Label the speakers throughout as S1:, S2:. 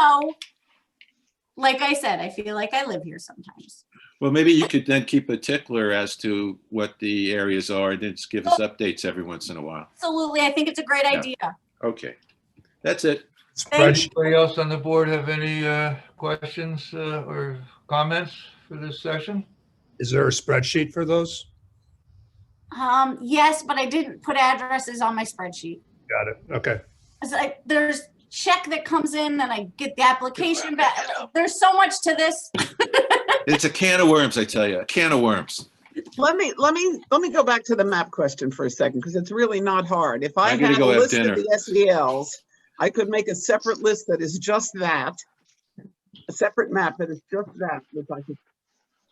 S1: now, like I said, I feel like I live here sometimes.
S2: Well, maybe you could then keep a tickler as to what the areas are and then just give us updates every once in a while.
S1: Absolutely, I think it's a great
S2: Yeah.
S1: idea.
S2: Okay, that's it.
S1: Thank you.
S3: Anybody else on the board have any uh, questions uh, or comments for this session?
S4: Is there a spreadsheet for those?
S1: Um, yes, but I didn't put addresses on my spreadsheet.
S4: Got it. Okay.
S1: 'Cause I- there's check that comes in and I get the application back. There's so much to this.
S2: It's a can of worms, I tell you, a can of worms.
S5: Let me, let me, let me go back to the map question for a second, because it's really not hard. If I
S2: I'm gonna
S5: had a
S2: go have
S5: list of
S2: dinner.
S5: the SELs, I could make a separate list that is just that. A separate map that is just that, which I could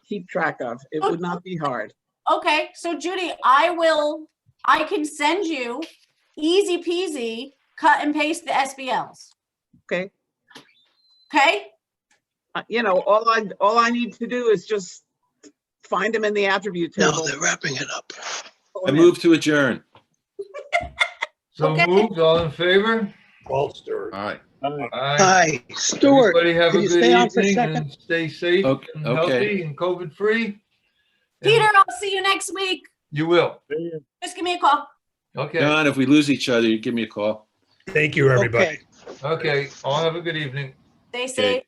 S5: keep track of. It would not be hard.
S1: Okay, so Judy, I will, I can send you easy peasy, cut and paste the SBLs.
S5: Okay.
S1: Okay?
S5: Uh, You know, all I, all I need to do is just find them in the attribute
S6: No,
S5: table.
S6: they're wrapping it up.
S5: pull
S2: I
S5: 'em in.
S2: move to adjourn.
S3: So
S1: Okay.
S3: moved, all in favor?
S4: Bolster.
S2: All right,
S3: Aye.
S6: Hi, Uh, Stuart.
S3: Everybody have a
S6: can you stay on
S3: good
S6: for a
S3: evening
S6: second?
S3: and stay safe
S2: Okay,
S3: and
S2: okay.
S3: healthy and COVID-free.
S1: Peter, I'll see you next week.
S3: You will.
S1: Just give me a call.
S3: Okay,
S2: Don, if we lose each other, you give me a call.
S4: Thank you, everybody.
S6: Okay.
S3: okay. All have a good evening.
S1: They
S2: Okay.
S1: say.